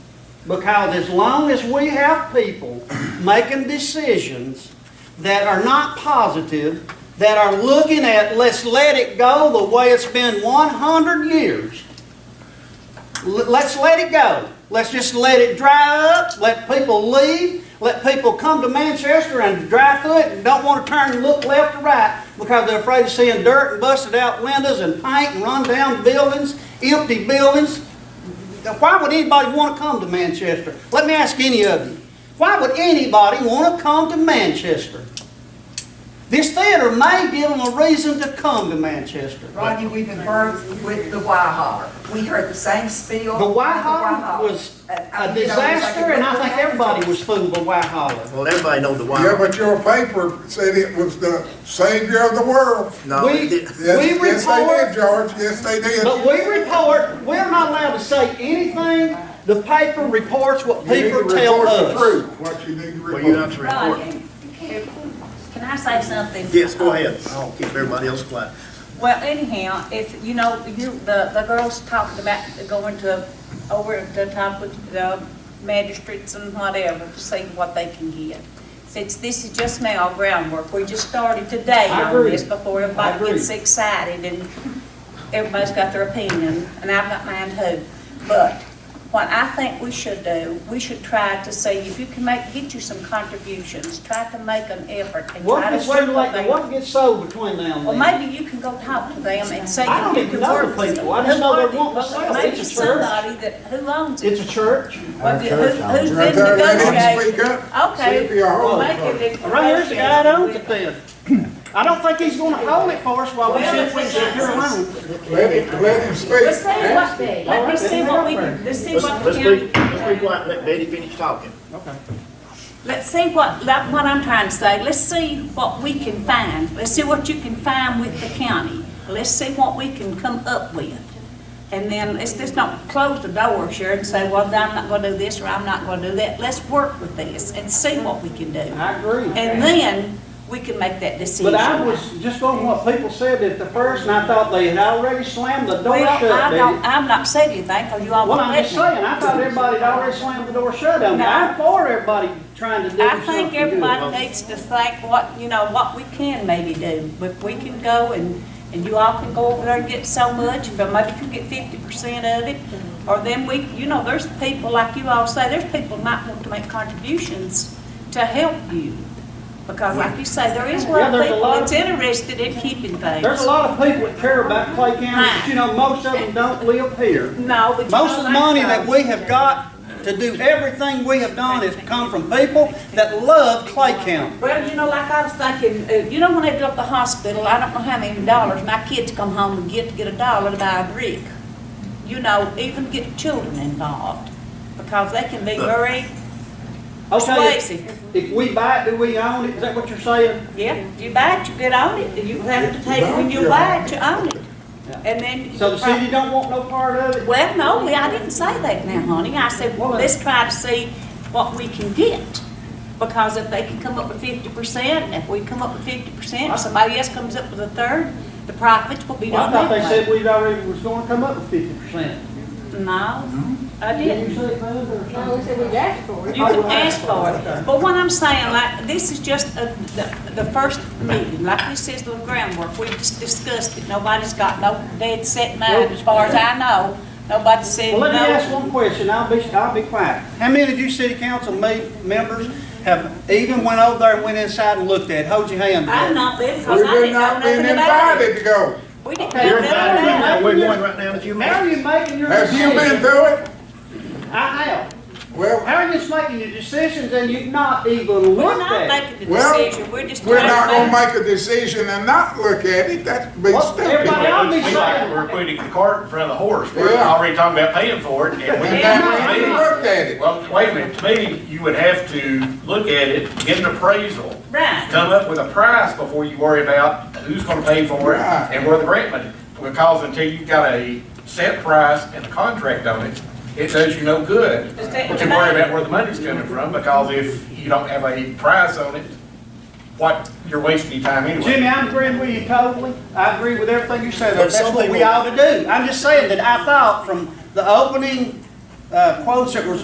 Because as long as we have people making decisions that are not positive, that are looking at, let's let it go the way it's been 100 years, L- let's let it go. Let's just let it dry up, let people leave, let people come to Manchester and drive through it and don't want to turn and look left or right because they're afraid of seeing dirt and busted out windows and paint and run down buildings, empty buildings. Now, Why would anybody want to come to Manchester? Let me ask any of you. Why would anybody want to come to Manchester? This theater may give them a reason to come to Manchester. Rodney, we've been burned with the Wyhaller. We heard the same spiel. The with Whitehaller was And, I a mean, you know, it's like disaster, and I think it- everybody was fooled by Whitehaller. Well, everybody knows the Yeah, why. but your paper said it was the savior of the world. No, We- it did- Uh, Yes, We yes, they report- did, George, yes, they did. But we report, we're not allowed to say anything. The paper reports what You need to people tell report the us. truth, What you need to well, you report. have to Rod, report. you you can't, can I say something? Yes, go ahead. I'll keep everybody else quiet. Well, anyhow, if, you know, you, the, the girls talked about going to, over the top of the magistrates and whatever, to see what they can get. Since this is just now groundwork, we just started today I on agree. this before I everybody agree. gets excited and everybody's got their opinion, and I've got mine too. But what I think we should do, we should try to see if you can make, get you some contributions, try to make an effort and What try if it's to work too with late, and them. what if it gets sold between now and Well, then? maybe you can go talk to them and say. I don't if you even can know the work with people. I just them. know they Who want are they? to sell. It's a church. Maybe somebody that, who owns It's it? a church. Well, if you- who- Who's Right been there, let him negotiating? speak up. See Okay. if he'll well, hold make it. it if- Right here's the guy that owns it then. I don't think he's gonna hold it for us while we Well, sit, we it's sit here nice. alone. Let him, let him speak. Let's see what, let me see what we, can- let's see Let's, what the let's county. be, let's be quiet and let Betty finish talking. Okay. Let's see what, like what I'm trying to say, let's see what we can find, let's see what you can find with the county, let's see what we can come up with. And then, let's just not close the door, Sharon, and say, well, I'm not gonna do this, or I'm not gonna do that, let's work with this and see what we can do. I agree. And then, we can make that decision. But I was just on what people said at the first, and I thought they had already slammed the door Well, shut, I Betty. don't, I'm not saying anything, because you all Well, won't I'm let just me. saying, I thought everybody had already slammed the door shut on me. No. I'm for everybody trying to do I something think good. everybody needs to think what, you know, what we can maybe do. If we can go and, and you all can go over there and get so much, but maybe you can get fifty percent of it. Or then we, you know, there's people, like you all say, there's people might want to make contributions to help you. Because like you say, there is a Yeah, lot of there's a people lot that's interested in keeping things. There's a lot of people that care about Clay County, but you know, most of them don't live here. No, but you Most of know, the money that like- we have got to do everything we have done has come from people that love Clay County. Well, you know, like I was thinking, uh, you know, when they built the hospital, I don't know how many dollars, my kids come home and get, get a dollar to buy a brick. You know, even get children involved, because they can be very Okay, persuasive. if we buy it, do we own it? Is that what you're saying? Yeah, you buy it, you get on it, you have to take, when you buy it, you own it. And then. So the city don't want no part of it? Well, no, I didn't say that now, honey. I said, well, let's try to see what we can get. Because if they can come up with fifty percent, if we come up with fifty percent, somebody else comes up with a third, the profits will be Well, I done thought they that said way. we would already was gonna come up with fifty percent. No, I Did you didn't. say that or something? No, we said we asked for You it. can ask for it. But what I'm saying, like, this is just a- the, the first meeting, like this is the groundwork. We just discussed it. Nobody's got no dead set mind, as far as I know. Nobody said no. Well, let me ask one question, I'll be, I'll be quiet. How many of you city council me- members have even went over there and went inside and looked at, it? hold your hand I'm up? not there because We've I didn't know not nothing been about invited it. to go. We didn't Okay, know You're nothing invited right about now. it. We're going right now in a How few are minutes. you making your Have you been decisions? through it? I have. Well, How are you just making your decisions and you've not even We're looked not at? it? making the Well, decision, we're just we're not trying gonna to make. make a decision and not look at it, that's big Well, everybody stupid. else- We like, we're putting the cart in front of the horse, we're Yeah. already talking about paying for it, and we And Yeah, now no, you no. to looked at me, it. well, wait a minute, to me, you would have to look at it, get an appraisal, Right, come up with a price before you worry about who's gonna pay for it Right. and where the grant money. Because until you've got a set price and a contract on it, it does you no good Just take to the worry money. about where the money's coming from, because if you don't have a price on it, what, you're wasting your time anyway. Jimmy, I'm agreeing with you totally. I agree with everything you said. But That's some what we people- ought to do. I'm just saying that I thought from the opening uh, quotes that was